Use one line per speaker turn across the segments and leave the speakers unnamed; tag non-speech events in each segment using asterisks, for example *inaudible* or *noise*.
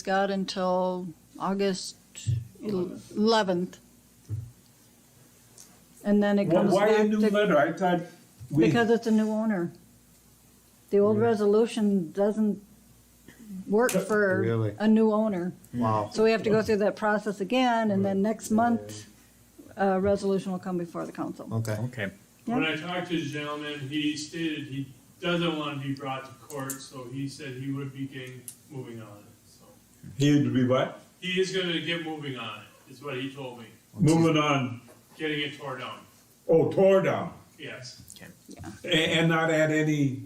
It's got until August eleventh. And then it
Why,
goes
why a
back
new
to,
letter? I thought we,
because it's a new owner. The old resolution doesn't work for
Really?
a new owner.
Wow.
So we have to go through that process again, and then next month, a resolution will come before the council.
Okay.
Okay.
When I talked to the gentleman, he stated he doesn't want to be brought to court, so he said he would be getting, moving on it, so.
he would be what?
He is gonna get moving on it, is what he told me,
Moving on,
getting it tore down,
oh, tore down,
yes.
A- and, not add any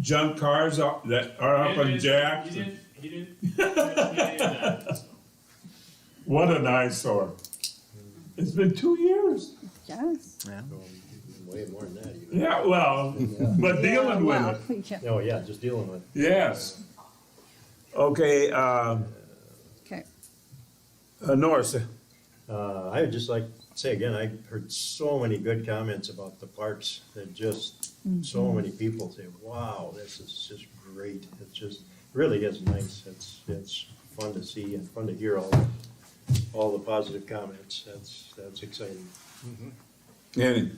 junk cars up that are up on
And-
Jack.
He didn't, he didn't.
*laughs*
he didn't say that, so.
What an eyesore. It's been two years.
Yes.
Way more than that even.
Yeah, well, but
Yeah,
dealing with
well, *laughs*
it,
yeah.
Oh, yeah, just dealing with.
yes. Okay, uh,
Okay,
uh, Norris,
Uh, I would just like to say again, I heard so many good comments about the parks that just, so
Mm-hmm.
many people say, wow, this is just great. It's just, really is nice. It's, it's fun to see and fun to hear all, all the positive comments. That's, that's exciting.
and,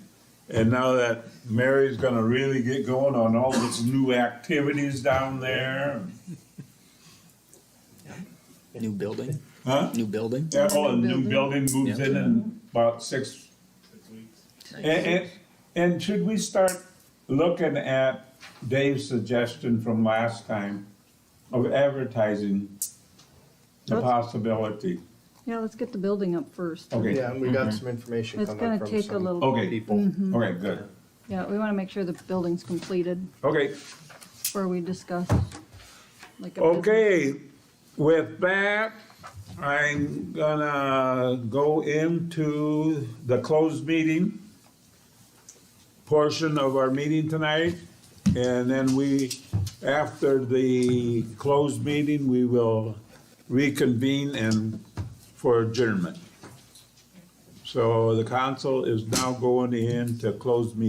and now that Mary's gonna really get going on all these new activities down there.
New building.
Huh?
New building.
Yeah, oh, a new building moves
Yeah.
in in about six. And, and, and should we start looking at Dave's suggestion from last time of advertising the
Let's-
possibility?
yeah, let's get the building up first.
Okay,
and we got some information
It's gonna take a little,
okay, okay, good,
yeah, we wanna make sure the building's completed.
okay.
where we discuss. like, a
Okay, with that, I'm gonna go into the closed meeting portion of our meeting tonight. And then we, after the closed meeting, we will reconvene and for adjournment. So the council is now going into closed meeting.